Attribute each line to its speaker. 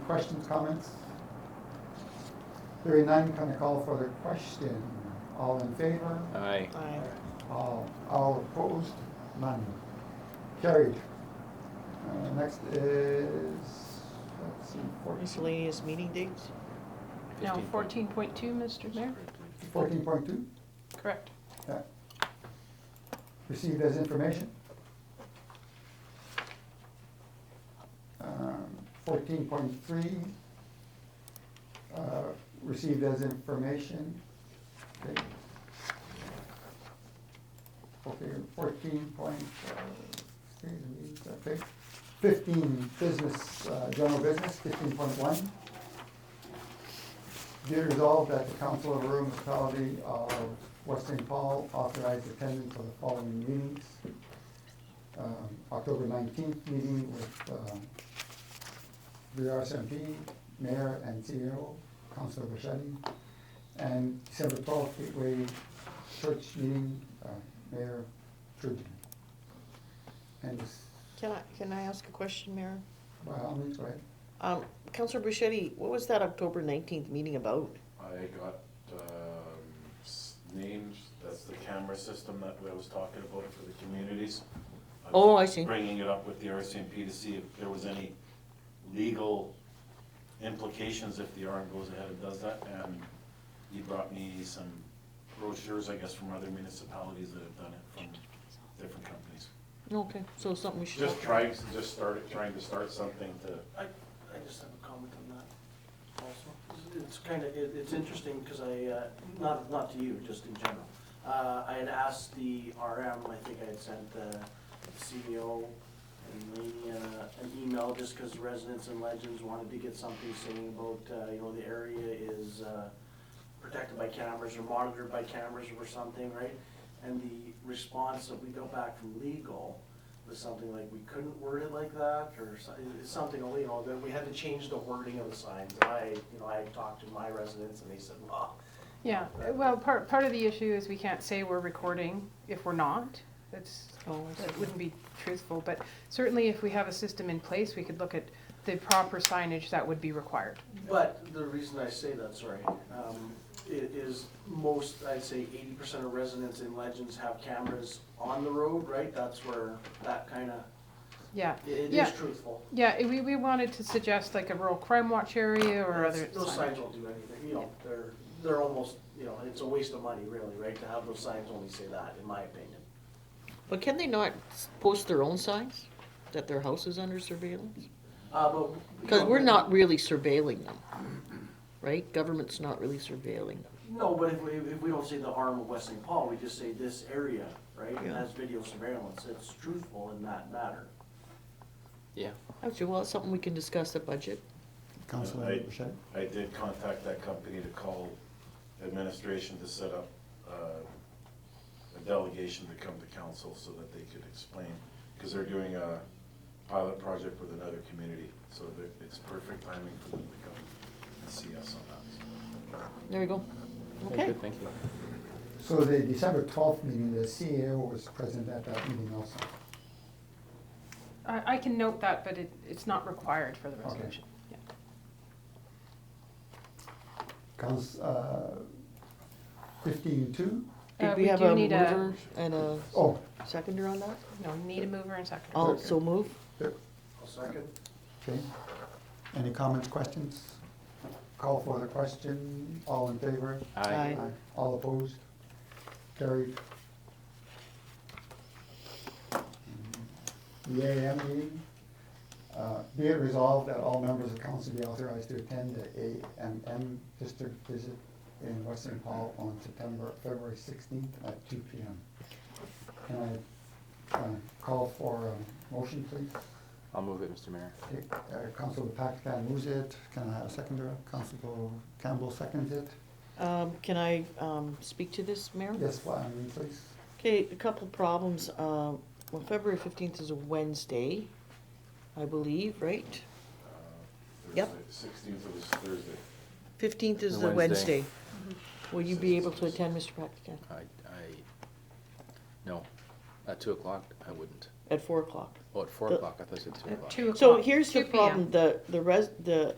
Speaker 1: questions, comments? Hearing none, can I call for the question? All in favor?
Speaker 2: Aye.
Speaker 3: Uh,
Speaker 4: Aye.
Speaker 1: All, all opposed? None. Carried. Uh, Next is, let's see, fourteen,
Speaker 4: Miscellaneous meeting dates?
Speaker 3: Now, fourteen point two, Mr. Mayor?
Speaker 1: fourteen point two?
Speaker 3: Correct.
Speaker 1: Yeah. Received as information. Um, Fourteen point three, uh, received as information. Okay, Okay. fourteen point, uh, okay, fifteen, business, uh, general business, fifteen point one. Be it resolved that the Council of Rural Municipality of West St. Paul authorized attendance of the following meetings. Um, October nineteenth meeting with um, the RSMP, Mayor and CEO, Councilor Bichetti. And December twelfth, Gateway Church meeting, uh, Mayor Trudeau. And, this-
Speaker 4: Can I, can I ask a question, Mayor?
Speaker 1: by all means, go ahead.
Speaker 4: Um, Counselor Bruschetti, what was that October nineteenth meeting about?
Speaker 5: I got um, s- names, that's the camera system that I was talking about for the communities. I was
Speaker 4: Oh, I see.
Speaker 5: Bringing it up with the RCMP to see if there was any legal implications if the RM goes ahead and does that. And he brought me some brochures, I guess, from other municipalities that have done it, from different companies.
Speaker 4: Okay, so something we should.
Speaker 5: Just trying, just started, trying to start something to
Speaker 6: I, I just have a comment on that also. It's kind of, it, it's interesting because I, uh, not, not to you, just in general. Uh, I had asked the RM, I think I had sent the CEO and Lainey, uh, an email just because residents and legends wanted to get something saying about, uh, you know, the area is, uh, protected by cameras or monitored by cameras or something, right? And the response that we got back from legal was something like, we couldn't word it like that, or so- it- it's something, you know, that we had to change the wording of the signs. And I, you know, I talked to my residents and they said, well,
Speaker 3: Yeah, well, part, part of the issue is we can't say we're recording if we're not. That's,
Speaker 4: Oh, I
Speaker 3: that
Speaker 4: see.
Speaker 3: wouldn't be truthful, but certainly if we have a system in place, we could look at the proper signage that would be required.
Speaker 6: But the reason I say that, sorry, um, i- is most, I'd say eighty percent of residents in Legends have cameras on the road, right? That's where that kind of,
Speaker 3: Yeah,
Speaker 6: it
Speaker 3: Yeah.
Speaker 6: is truthful.
Speaker 3: yeah, i- we, we wanted to suggest like a rural crime watch area or
Speaker 6: It's-
Speaker 3: other
Speaker 6: Those
Speaker 3: signage.
Speaker 6: signs don't do anything, you know, they're, they're almost, you know, it's a waste of money really, right? To have those signs only say that, in my opinion.
Speaker 4: But can they not s- post their own signs that their house is under surveillance?
Speaker 6: Uh, but. you
Speaker 4: Because
Speaker 6: know,
Speaker 4: we're not really surveilling them, right? Government's not really surveilling them.
Speaker 6: No, but if we, if we don't say the arm of West St. Paul, we just say this area, right?
Speaker 4: Yeah.
Speaker 6: Has video surveillance, it's truthful in that matter.
Speaker 2: Yeah.
Speaker 4: Actually, well, it's something we can discuss at budget.
Speaker 1: Councilor
Speaker 5: I-
Speaker 1: Bichetti?
Speaker 5: I did contact that company to call administration to set up uh, a delegation to come to council so that they could explain, because they're doing a pilot project with another community, so that it's perfect timing for them to come and see us on that.
Speaker 4: There we go.
Speaker 2: Very
Speaker 4: Okay,
Speaker 2: good, Thank you.
Speaker 1: So the December twelfth meeting, the CEO was present at that meeting also.
Speaker 3: I, I can note that, but it, it's not required for the
Speaker 1: Okay.
Speaker 3: resolution. Yeah.
Speaker 1: Counts, uh, fifteen two,
Speaker 3: Uh,
Speaker 4: did we
Speaker 3: we
Speaker 4: have
Speaker 3: do
Speaker 4: a
Speaker 3: need a-
Speaker 4: mover and a
Speaker 1: oh,
Speaker 4: seconder on that?
Speaker 3: No, need a mover and seconder.
Speaker 4: I'll so move.
Speaker 6: I'll second.
Speaker 1: okay. Any comments, questions? Call for the question, all in favor?
Speaker 4: Aye.
Speaker 1: All opposed? Carried. The AAM meeting, uh, be it resolved that all members of council be authorized to attend the AMM district visit in West St. Paul on September, February sixteenth at two P M. Can I, uh, call for a motion, please?
Speaker 2: I'll move it, Mr. Mayor.
Speaker 1: Okay, uh, Council Paxton moves it, can I have a seconder? Council Campbell seconds it.
Speaker 4: Um, Can I um, speak to this, Mayor?
Speaker 1: Yes, Wyman, please.
Speaker 4: Okay, a couple problems. Um, well, February fifteenth is a Wednesday, I believe, right? Yep.
Speaker 5: Sixteenth was Thursday.
Speaker 4: Fifteenth is
Speaker 2: The
Speaker 4: the
Speaker 2: Wednesday.
Speaker 4: Wednesday. Will you be able to attend, Mr. Practican,
Speaker 2: I, I, no, at two o'clock, I wouldn't.
Speaker 4: at four o'clock?
Speaker 2: Oh, at four
Speaker 4: The-
Speaker 2: o'clock, I thought you said two
Speaker 3: At
Speaker 2: o'clock.
Speaker 3: two o'clock.
Speaker 4: So here's the
Speaker 3: 2 p.m.
Speaker 4: problem, the, the res, the